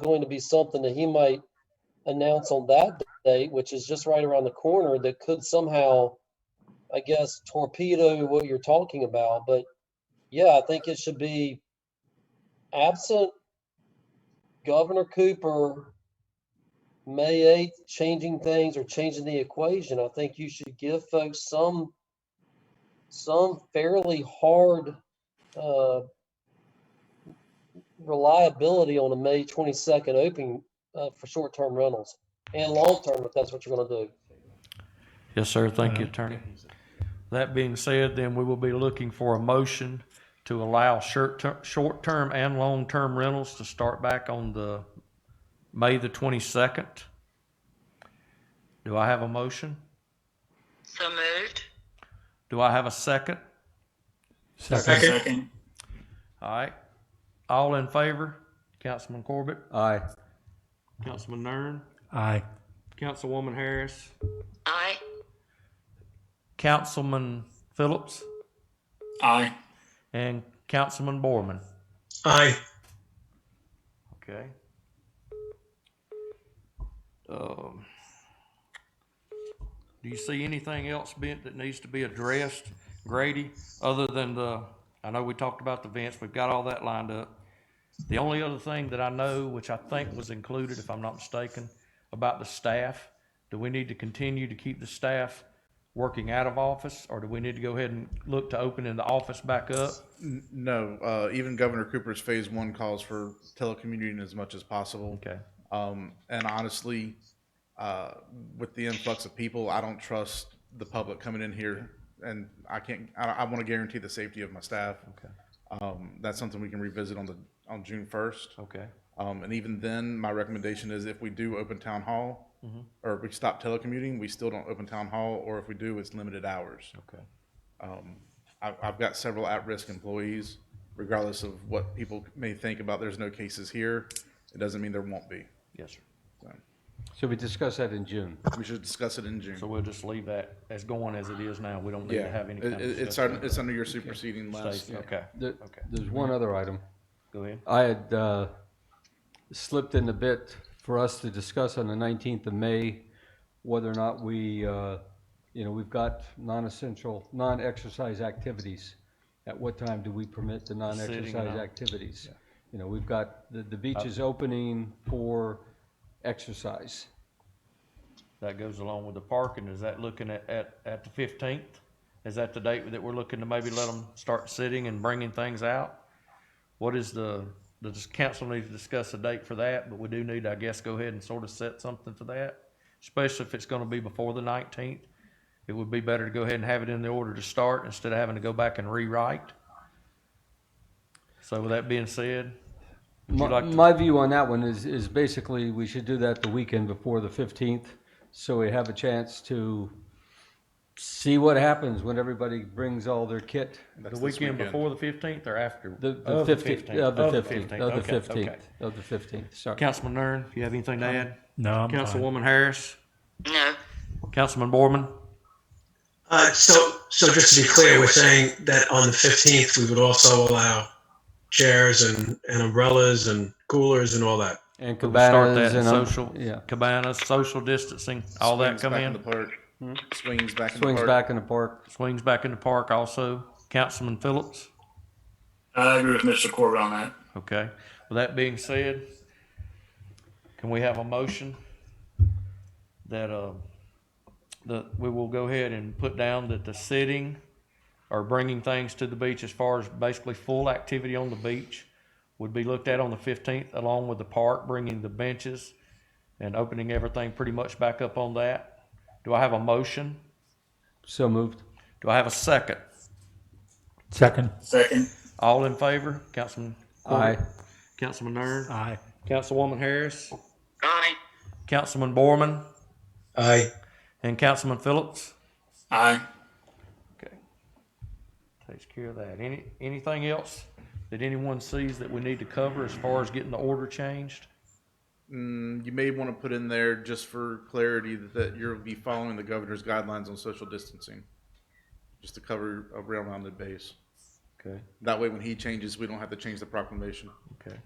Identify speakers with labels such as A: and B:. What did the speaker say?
A: going to be something that he might announce on that date, which is just right around the corner, that could somehow, I guess, torpedo what you're talking about. But yeah, I think it should be absent Governor Cooper, May 8th, changing things or changing the equation. I think you should give folks some, some fairly hard, uh, reliability on a May 22nd opening uh, for short-term rentals and long-term if that's what you're going to do.
B: Yes, sir. Thank you, Attorney. That being said, then we will be looking for a motion to allow short, short-term and long-term rentals to start back on the May the twenty-second. Do I have a motion?
C: So moved.
B: Do I have a second?
D: Second.
B: All right. All in favor? Councilman Corbett?
D: Aye.
B: Councilman Nern?
D: Aye.
B: Councilwoman Harris?
C: Aye.
B: Councilman Phillips?
E: Aye.
B: And Councilman Borman?
E: Aye.
B: Okay. Um, do you see anything else, Bent, that needs to be addressed, Grady, other than the, I know we talked about the vents, we've got all that lined up. The only other thing that I know, which I think was included, if I'm not mistaken, about the staff, do we need to continue to keep the staff working out of office, or do we need to go ahead and look to opening the office back up?
F: No, uh, even Governor Cooper's phase one calls for telecommuting as much as possible.
B: Okay,
F: Um, and honestly, uh, with the influx of people, I don't trust the public coming in here, and I can't. I, I want to guarantee the safety of my staff.
B: okay,
F: Um, that's something we can revisit on the on June first.
B: okay,
F: Um, and even then, my recommendation is if we do open town hall, or if we stop telecommuting, we still don't open town hall, or if we do, it's limited hours.
B: okay.
F: I've, I've got several at-risk employees, regardless of what people may think about there's no cases here. It doesn't mean there won't be.
B: Yes, sir.
D: So we discuss that in June.
F: We should discuss it in June.
B: So we'll just leave that as going as it is now. We don't need
F: Yeah,
B: to have any
F: It-
B: kind of
F: it- it's,
B: discussion.
F: un- it's under your superseding last.
B: Stacy, Okay,
D: There-
B: Okay.
D: There's one other item.
B: go ahead.
D: I had uh, slipped in a bit for us to discuss on the 19th of May, whether or not we, uh, you know, we've got non-essential, non-exercise activities. At what time do we permit the non-exercise
B: out. Uh,
D: activities? You know, we've got, the the beach is opening for exercise.
B: That goes along with the parking. Is that looking at, at, at the fifteenth? Is that the date that we're looking to maybe let them start sitting and bringing things out? What is the, the dis- council needs to discuss a date for that, but we do need, I guess, go ahead and sort of set something for that. Especially if it's gonna be before the nineteenth. It would be better to go ahead and have it in the order to start instead of having to go back and rewrite. So with that being said, would you
D: My,
B: like to?
D: my view on that one is, is basically we should do that the weekend before the 15th, so we have a chance to see what happens when everybody brings all their kit.
F: That's
B: The
F: this
B: weekend before the fifteenth or after?
D: The, the
B: Of the
D: 15th, of the 15th, of
B: Okay,
D: the
B: okay.
D: 15th, of the 15th, sorry.
B: Councilman Nern, you have anything to add?
G: No, I'm fine.
B: Councilwoman Harris,
C: No.
B: Councilman Borman,
E: Uh, so, so just to be clear, we're saying that on the 15th, we would also allow chairs and, and umbrellas and coolers and all that.
D: And
B: Could we start
D: cabanas
B: that
D: and,
B: in
D: um,
B: social-
D: yeah,
B: cabanas, social distancing, all that
F: Swings
B: come
F: back in
B: in?
F: the park.
B: Hmm?
F: Swings back in the
D: swings
F: park.
D: back in the park.
B: Swings back in the park also. Councilman Phillips,
H: I agree with Mr. Corbett on that.
B: okay. With that being said, can we have a motion that, uh, that we will go ahead and put down that the sitting or bringing things to the beach as far as basically full activity on the beach would be looked at on the fifteenth, along with the park, bringing the benches and opening everything pretty much back up on that. Do I have a motion?
D: So moved.
B: Do I have a second?
G: Second.
H: Second.
B: All in favor? Councilman
D: Aye.
B: Corbett? Councilman Nern?
G: Aye.
B: Councilwoman Harris?
C: Aye.
B: Councilman Borman?
E: Aye.
B: And Councilman Phillips?
H: Aye.
B: Okay. Takes care of that. Any, anything else that anyone sees that we need to cover as far as getting the order changed?
F: Mm, You may want to put in there, just for clarity, that you'll be following the governor's guidelines on social distancing, just to cover a rounded base.
B: Okay,
F: That way, when he changes, we don't have to change the proclamation.
B: okay.